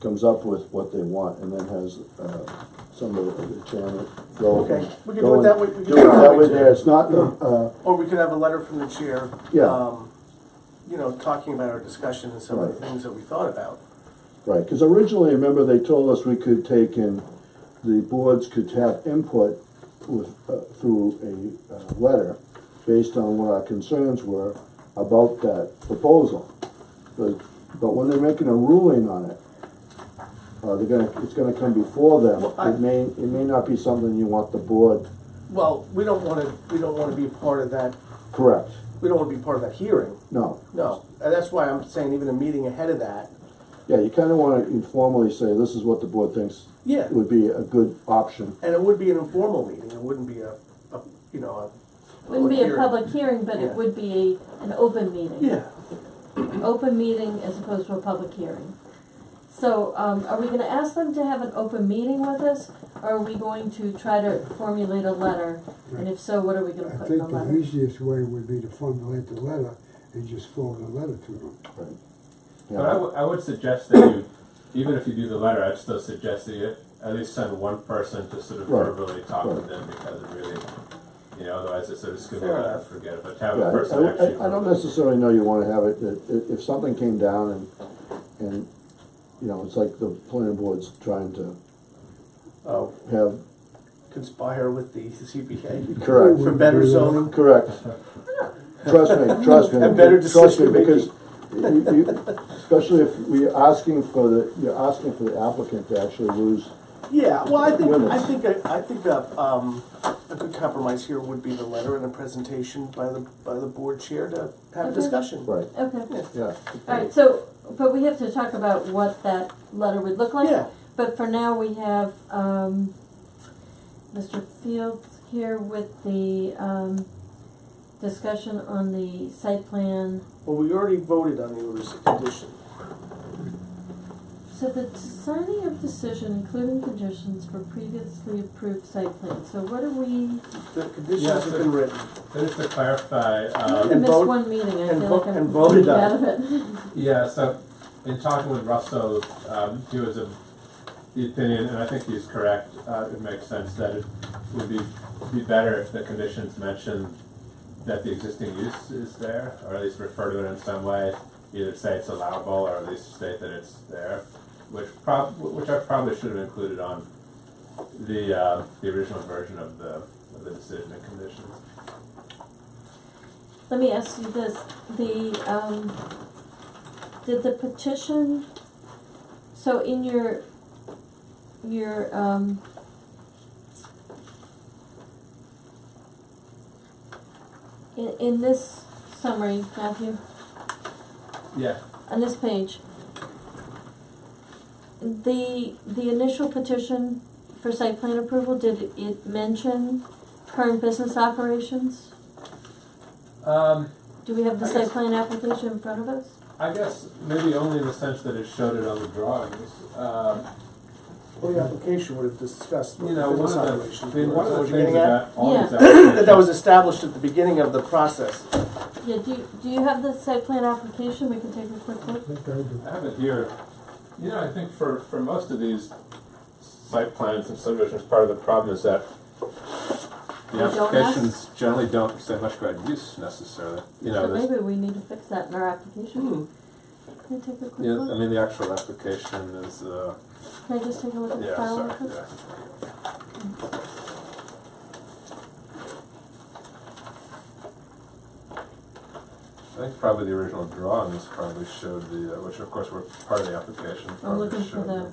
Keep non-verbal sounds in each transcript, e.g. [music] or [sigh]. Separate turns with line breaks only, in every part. comes up with what they want and then has, uh, some of the chairman go.
Okay, we can do it
go and
that way- we
Do
can do
it
it that
that way
way.
there, it's not, uh,
Or we could have a letter from the chair.
Yeah.
um, You know, talking about our discussion and some of the
Right.
things that we thought about.
Right, because originally, remember, they told us we could take in, the boards could have input with, uh, through a, uh, letter based on what our concerns were about that proposal. But, but when they're making a ruling on it, uh, they're gonna, it's gonna come before them.
Well, I-
It may, it may not be something you want the board,
Well, we don't wanna, we don't wanna be part of that,
correct,
we don't wanna be part of that hearing,
no.
no. And that's why I'm saying even a meeting ahead of that,
Yeah, you kinda wanna informally say, this is what the board thinks
Yeah.
would be a good option.
and it would be an informal meeting, it wouldn't be a, a, you know, a.
Wouldn't be a
hearing.
public hearing, but
Yeah.
it would be a, an open meeting.
Yeah,
Open meeting as opposed to a public hearing. So, um, are we gonna ask them to have an open meeting with us, or are we going to try to formulate a letter? And if so, what are we gonna
I
put in the
think the
letter?
easiest way would be to formulate the letter and just forward the letter to them.
Right.
But I would- I would suggest that you, even if you do the letter, I'd still suggest that you at least send one person to sort of
Right.
verbally talk to
Right.
them because it really, you know, otherwise it's sort of skim
Fair
over and
enough.
forget it, but to have
Yeah,
a
I-
person
I,
actually.
I- I don't
verbally-
necessarily know you wanna have it, that- if, if something came down and, and, you know, it's like the planning board's trying to
oh,
have,
conspire with the CPA.
Correct.
For better zoning.
correct. Trust me, trust
[laughs]
me.
And better
trust me,
decision-making.
Because you, you, especially if we're asking for the, you're asking for the applicant to actually lose,
Yeah, well, I think, I
Goodness.
think, a- I think a, um, a good compromise here would be the letter and a presentation by the, by the board chair to have a
Okay.
discussion.
right,
Okay,
yeah.
alright, so, but we have to talk about what that letter would look like.
Yeah.
But for now, we have, um, Mr. Fields here with the, um, discussion on the site plan.
Well, we already voted on the orders of condition.
So the signing of decision, including conditions for previously approved site plan, so what are we,
The conditions
Yes,
have
sir.
been written.
So Just to clarify,
I
um,
Uh, And
missed
vote-
one meeting, I
and
feel
vo-
like I'm.
and voted on.
out of it. [laughs]
Yeah, so in talking with Russell, um, he was of the opinion, and I think he's correct, uh, it makes sense that it would be, be better if the conditions mentioned that the existing use is there, or at least refer to it in some way, either say it's allowable or at least state that it's there, which prob, which I probably should have included on the, uh, the original version of the, of the decision and conditions.
Let me ask you this, the, um, did the petition, so in your, your, um, in, in this summary, Matthew,
Yeah,
on this page, the, the initial petition for site plan approval, did it mention current business operations?
um,
Do we have the
I
site
guess-
plan application in front of us?
I guess maybe only in the sense that it showed it on the drawings, um,
Well, the application would have discussed what
You
the
know, one
business
of the,
operations
I mean, one
were. Is that what
of the
you're
things
getting at?
about all these
That [laughs] that was
applications,
established at the beginning of the process.
Yeah, do you, do you have the site plan application, we can take a quick look?
I have it here, you know, I think for, for most of these site plans and subdivisions, part of the problem is that
They
the
don't ask?
applications generally don't say much about use necessarily, you know,
So
there's-
maybe we need to fix that in our
Hmm.
Hmm.
application. Can I take a quick
yeah, I
look?
mean, the actual application is, uh,
Can I just take a look at the
yeah,
file?
sorry,
real quick?
yeah. I think probably the original drawings probably showed the, uh, which of course were part of the application,
I'm
probably
looking for
showed the.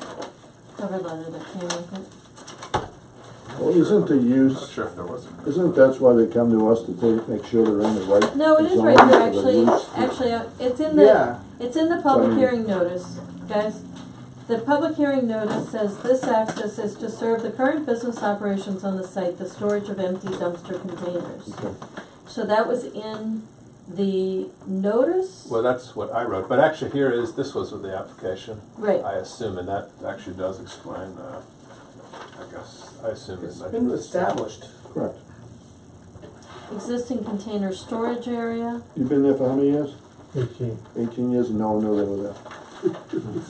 the cover letter that came with it.
Well, isn't the
I'm not
use,
sure if there was a.
isn't that's why they come to us to take, make sure they're in the right.
No, it is
zone
right there,
for the
actually,
use?
actually, uh, it's in the,
Yeah,
it's in the public
Sorry.
hearing notice, guys. The public hearing notice says this access is to serve the current business operations on the site, the storage of empty dumpster containers.
Okay.
So that was in the notice?
Well, that's what I wrote, but actually here is, this was with the application,
Right,
I assume, and that actually does explain, uh, I guess, I assume.
it's
that-
been established.
Correct.
existing container storage area.
You've been there for how many years?
Eighteen.
Eighteen years, and no one knew they were there.